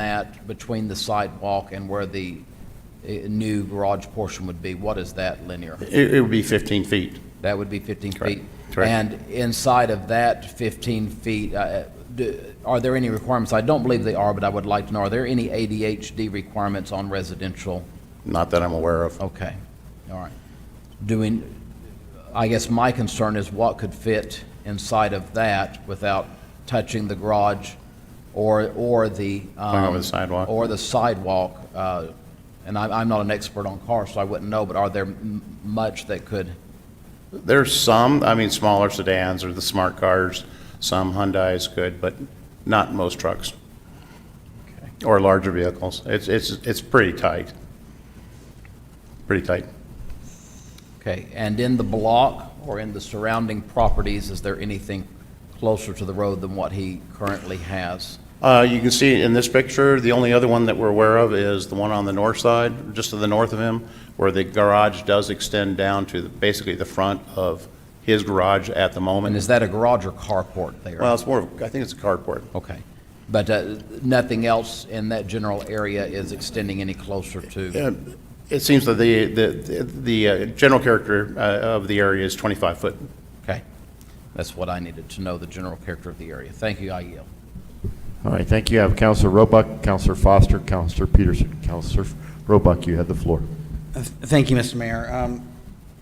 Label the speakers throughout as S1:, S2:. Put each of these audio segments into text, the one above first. S1: that between the sidewalk and where the uh, new garage portion would be, what is that linear?
S2: It, it would be 15 feet.
S1: That would be 15
S2: Correct.
S1: feet?
S2: Correct.
S1: And inside of that 15 feet, uh, do- are there any requirements? I don't believe they are, but I would like to know, are there any ADHD requirements on residential?
S2: Not that I'm aware of.
S1: Okay, all right. Doing, I guess my concern is what could fit inside of that without touching the garage or, or the.
S2: Going over
S1: um,
S2: the sidewalk.
S1: Or the sidewalk. uh, And I'm, I'm not an expert on cars, so I wouldn't know, but are there m- much that could?
S2: There's some, I mean, smaller sedans or the smart cars, some Hyundais could, but not most trucks. Or larger vehicles. It's, it's, it's pretty tight. Pretty tight.
S1: Okay, and in the block or in the surrounding properties, is there anything closer to the road than what he currently has?
S2: Uh, you can see in this picture, the only other one that we're aware of is the one on the north side, just to the north of him, where the garage does extend down to the- basically the front of his garage at the
S1: And
S2: moment.
S1: is that a garage or carport there?
S2: Well, it's more, of- I think it's a carport.
S1: Okay, but uh, nothing else in that general area is extending any closer to?
S2: Uh, It seems that the, the, the uh, general character uh, of the area is 25 foot.
S1: Okay, that's what I needed to know, the general character of the area. Thank you, I yield.
S3: All right, thank you. I have Counselor Roebuck, Counselor Foster, Counselor Peterson. Counselor Roebuck, you have the floor.
S4: Uh, Thank you, Mr. Mayor. Um,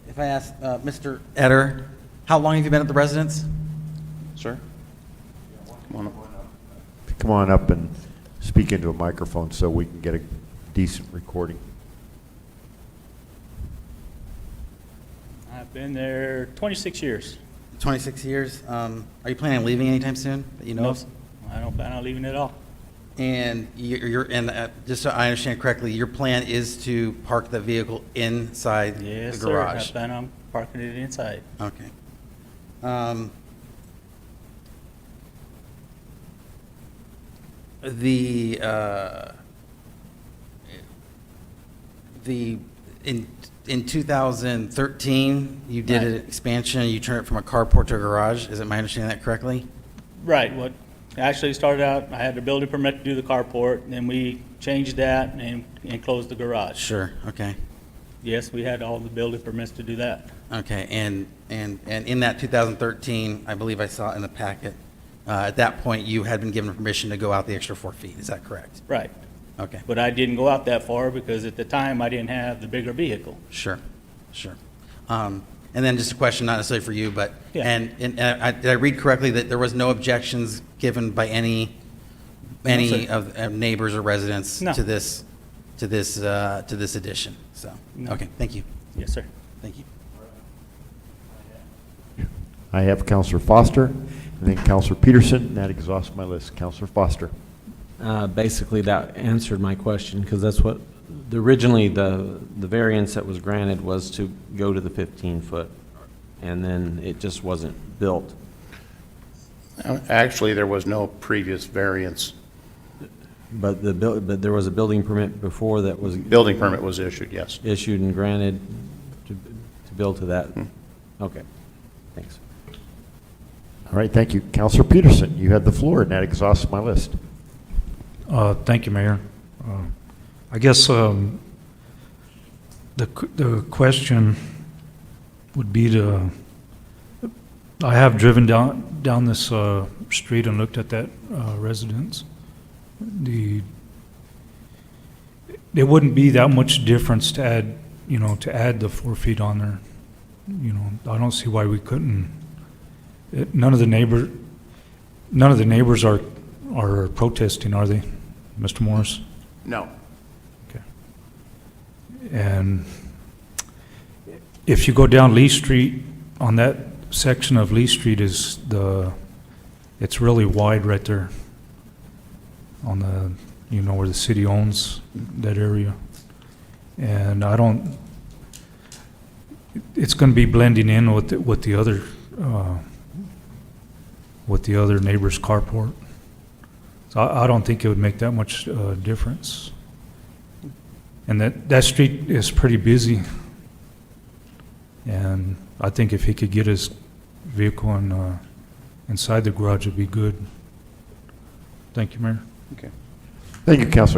S4: If I ask, uh, Mr. Etter, how long have you been at the residence?
S2: Sir? Come on up.
S3: Come on up and speak into a microphone so we can get a decent recording.
S5: I've been there 26 years.
S4: 26 years. Um, Are you planning on leaving anytime soon that you know of?
S5: I don't plan on leaving at all.
S4: And you're, you're- and uh, just so I understand correctly, your plan is to park the vehicle inside the
S5: Yes, sir. I
S4: garage?
S5: plan on parking it inside.
S4: Okay. Um, The, uh, the, in, in 2013, you did an
S5: Right.
S4: expansion, you turned it from a carport to a garage, is it my understanding that correctly?
S5: Right, what, actually started out, I had the building permit to do the carport, and then we changed that and, and closed the garage.
S4: Sure, okay,
S5: Yes, we had all the building permits to do that.
S4: okay, and, and, and in that 2013, I believe I saw in the packet, uh, at that point, you had been given permission to go out the extra four feet, is that correct?
S5: Right,
S4: Okay.
S5: but I didn't go out that far because at the time I didn't have the bigger vehicle.
S4: Sure, sure. Um, And then just a question, not necessarily for you, but,
S5: Yeah.
S4: and, and uh, I, did I read correctly that there was no objections given by any, any
S5: sir.
S4: of of neighbors or residents
S5: No.
S4: to this, to this, uh, to this addition? So,
S5: No.
S4: okay, thank you,
S5: Yes, sir.
S4: thank you.
S3: I have Counselor Foster, and then Counselor Peterson, and that exhausts my list. Counselor Foster.
S6: Uh, Basically, that answered my question, because that's what, the- originally, the, the variance that was granted was to go to the 15-foot, and then it just wasn't built.
S2: uh, Actually, there was no previous variance.
S6: But the, buil- but there was a building permit before that was
S2: Building permit was issued, yes.
S6: issued and granted to, to build to that. Okay, thanks.
S3: All right, thank you. Counselor Peterson, you have the floor, and that exhausts my list.
S7: Uh, Thank you, Mayor. Uh, I guess um, the q- the question would be to, I have driven down, down this uh, street and looked at that uh, residence. The, there wouldn't be that much difference to add, you know, to add the four feet on there. You know, I don't see why we couldn't. It- None of the neighbor, none of the neighbors are, are protesting, are they, Mr. Morris?
S2: No.
S7: Okay. And Um, if you go down Lee Street, on that section of Lee Street is the, it's really wide right there. On the, you know, where the city owns that area. And I don't, it's gonna be blending in with, the- with the other, uh, with the other neighbor's carport. So I, I don't think it would make that much, uh, difference. And that, that street is pretty busy. And I think if he could get his vehicle in, uh, inside the garage, it'd be good. Thank you, Mayor.
S2: Okay.
S3: Thank you, Counselor